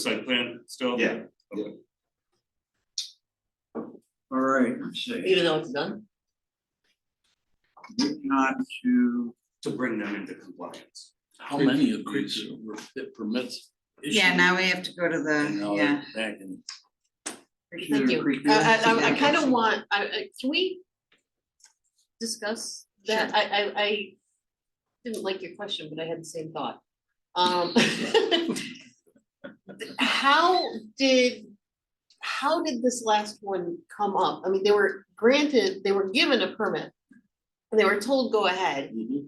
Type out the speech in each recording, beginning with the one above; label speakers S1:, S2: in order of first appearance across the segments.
S1: site plan still?
S2: Yeah.
S3: All right, let's see,
S4: Even though it's done?
S3: moving on to
S1: To bring them into compliance.
S3: how many of these were fit permits?
S5: Yeah, now we have to go to the, yeah.
S3: Back in.
S4: Thank
S3: Cedar
S4: you.
S3: Creek
S4: I, Uh, I, I- I
S3: Village.
S4: kind of want, I, I, can we discuss that? I, I, I didn't like your question, but I had the same thought. Um, how did, how did this last one come up? I mean, they were granted, they were given a permit. They were told, go ahead,
S3: Mhm,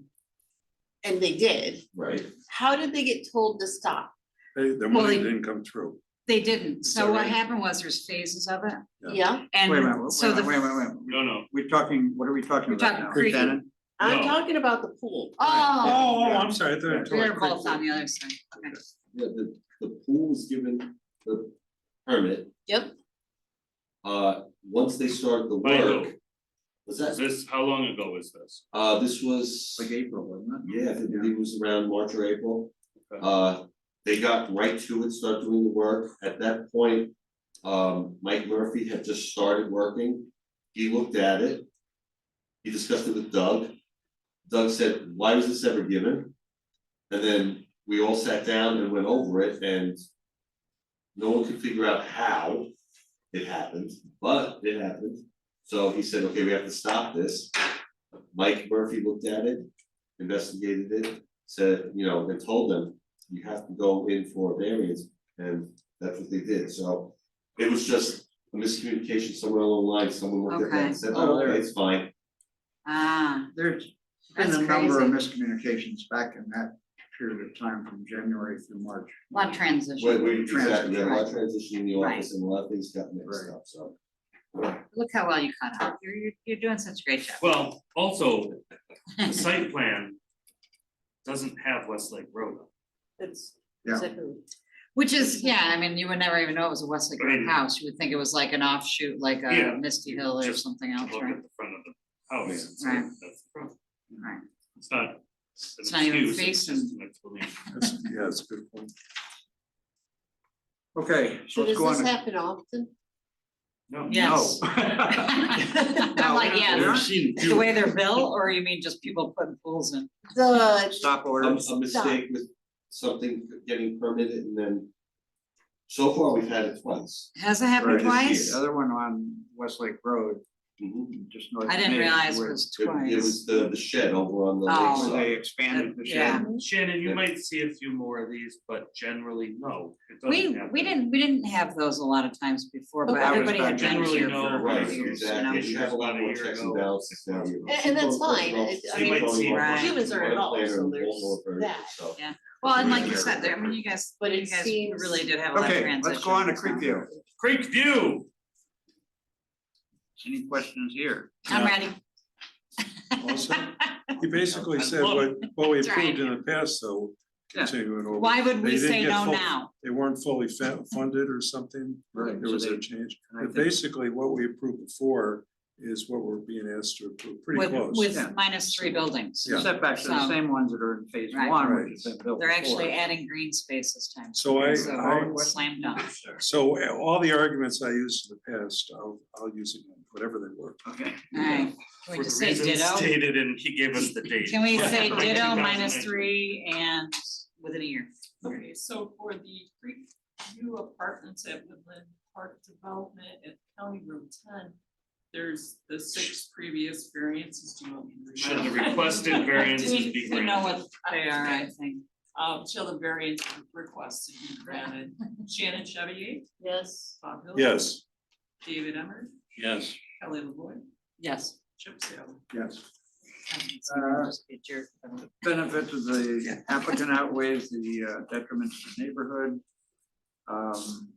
S4: and they did.
S3: Right.
S4: How did they get told to stop?
S6: They, their
S5: Well,
S6: money
S5: they-
S6: didn't come through.
S5: They didn't, so
S3: So
S5: what
S3: they-
S5: happened was there's phases of it,
S6: Yeah.
S4: Yeah,
S3: Wait a minute,
S5: and
S3: wait a
S5: so the.
S3: minute, wait a minute, wait a minute.
S1: No, no.
S3: We're talking, what are we talking
S5: We're
S3: about
S5: talking
S3: now?
S5: creepy.
S3: Shannon?
S4: I'm
S1: No.
S4: talking about the pool.
S5: Oh,
S6: Oh, I'm sorry, I thought. you were talking
S5: they're
S6: about
S5: both on the other side, okay.
S7: Yeah, the, the pool's given the permit,
S4: Yep,
S7: uh, once they start the
S1: By who?
S7: work. Was that,
S1: This, how long ago was this?
S7: uh, this was,
S3: Like April, wasn't it?
S7: yeah, I believe it was around March or April.
S1: Okay.
S7: Uh, they got right to it, started doing the work, at that point, um, Mike Murphy had just started working. He looked at it, he discussed it with Doug, Doug said, why was this ever given? And then we all sat down and went over it and no one could figure out how it happened, but it happened. So he said, okay, we have to stop this. Mike Murphy looked at it, investigated it, said, you know, and told them, you have to go in for a variance, and that's what they did, so. It was just a miscommunication somewhere along the line, someone looked at that
S5: Okay.
S7: and said,
S3: Oh,
S7: oh,
S3: there-
S7: okay, it's fine,
S5: Ah,
S3: There's been
S5: That's
S3: a number of miscommunications back in that period of time from January through March.
S5: a lot of
S7: Wait,
S5: transition,
S7: wait, exactly, yeah, a lot of
S5: Transition.
S7: transition in the
S5: Right.
S7: office and a lot of things got mixed
S3: Right.
S7: up, so.
S5: look how well you caught up, you're, you're, you're doing such a great job.
S1: Well, also, the site plan doesn't have Westlake Road. on
S4: that's
S3: Yeah.
S4: exactly.
S5: Which is, yeah, I mean, you would never even know it was a Westlake Road
S1: Right.
S5: house, you would think it was like an offshoot, like
S1: Yeah.
S5: a Misty Hill or
S1: Just
S5: something
S1: it.
S5: else,
S1: Look
S5: right?
S1: at the front of the house. it's
S5: Right.
S1: like, that's the problem.
S5: Right,
S1: It's not. an
S5: It's not even
S1: excuse, it's
S5: facing-
S1: just an explanation.
S6: it. That's- Yeah, that's a good point.
S3: Okay, so
S4: So
S3: let's
S4: does
S3: go on.
S4: this
S3: to-
S4: happen often?
S1: No.
S5: yes.
S3: No.
S5: I'm like,
S3: We've
S5: yes,
S3: seen
S5: the way they're built, or you mean just people putting pools in?
S4: The,
S3: stop
S7: A
S3: orders.
S7: Um, a mistake with something getting permitted and then. So far, we've had it twice.
S5: Has it happened
S7: Right,
S5: twice?
S7: this
S3: The other one on Westlake Road,
S7: Mhm.
S3: just north.
S5: I
S3: of
S5: didn't
S3: me,
S5: realize it
S3: where-
S5: was
S7: It- It
S5: twice.
S7: was the the shed over on the
S3: where
S5: Oh.
S3: They
S7: lakeside.
S3: expanded the
S5: Yeah.
S3: shed.
S1: Shannon, you might see a few more of these, but generally, no, it doesn't
S5: We,
S1: happen.
S5: we didn't, we didn't have those a lot of times before, but
S4: Okay. I was
S5: everybody had
S3: back
S5: been
S1: generally
S5: here
S1: know
S5: for a
S1: about
S7: Right,
S5: couple
S1: it.
S5: years,
S7: exactly,
S5: you know?
S7: and you have a lot
S1: About a
S7: more
S1: year
S7: checks
S1: ago.
S7: and balances now. you know.
S4: And- and that's fine, it- I
S7: People
S1: mean,
S7: going
S1: They
S7: off
S5: might see-
S4: humans are
S7: one
S4: involved,
S7: plan
S4: so
S7: and
S4: there's
S7: all over,
S4: that.
S7: so.
S5: Yeah. Well, and like you
S7: Yeah.
S5: said, there, I mean, you guys,
S4: But it
S5: you guys
S4: seems-
S5: really did have a lot of
S3: Okay,
S5: transition.
S3: let's go on to
S5: so.
S3: Creekview.
S1: Creek View,
S3: Any questions here?
S5: I'm ready.
S6: Also, He basically said
S1: Well,
S4: Oh,
S6: what, what we
S5: that's right.
S6: approved in the past, though,
S3: Yeah.
S6: continuing over.
S5: Why would
S6: They
S5: we
S6: didn't
S5: say
S6: get
S5: no
S6: full-
S5: now?
S6: They weren't fully fa- funded or something.
S3: Right,
S6: There
S3: so
S6: was
S3: they-
S6: a change.
S3: and I
S6: But
S3: think-
S6: basically, what we approved before is what we're being asked to approve, pretty
S5: With,
S6: close.
S3: Yeah.
S5: with minus three buildings.
S6: Yeah.
S3: Setbacks are the
S5: So-
S3: same ones that are in phase
S5: Right.
S3: one,
S6: Right.
S3: which has been built before.
S5: They're actually adding green space this time.
S6: So I,
S5: So
S6: I,
S5: slam dunk.
S6: so uh, all the arguments I used in the past, I'll, I'll use again, whatever they were.
S3: Okay.
S5: Alright,
S1: for
S5: can
S1: the
S5: we just say
S1: reasons
S5: ditto?
S1: stated, and he gave us the date.
S5: Can we say
S1: From
S5: ditto minus
S1: 2019.
S5: three and within a year?
S8: Okay, so for the Creek View Apartments at Woodland Park Development at County Road ten, there's the six previous variances, do you want me to read?
S1: Should the requested variances
S5: We
S1: be
S5: we know
S1: granted?
S5: what they are, I think.
S8: Um, shall the variance requested be granted? Shannon Chevy,
S4: yes,
S8: Bob
S5: Oh.
S8: Hill.
S6: Yes.
S8: David Emmer,
S3: Yes.
S8: Kelly LaVoy,
S5: Yes. Uh,
S8: Chip Saylor.
S3: Yes.
S5: Someone just be a jerk.
S3: benefit to the applicant outweighs the uh, detriment to the neighborhood. um,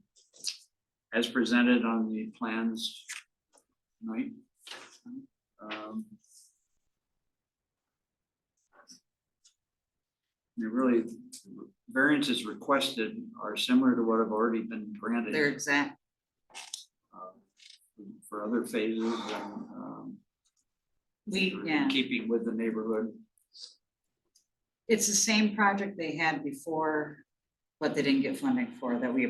S3: As presented on the plans tonight. Um, They really, variances requested are similar to what have already been granted
S5: They're exact,
S3: uh, for other phases and um,
S5: we,
S3: in
S5: yeah,
S3: keeping with the neighborhood.
S5: it's the same project they had before, but they didn't get funding for that we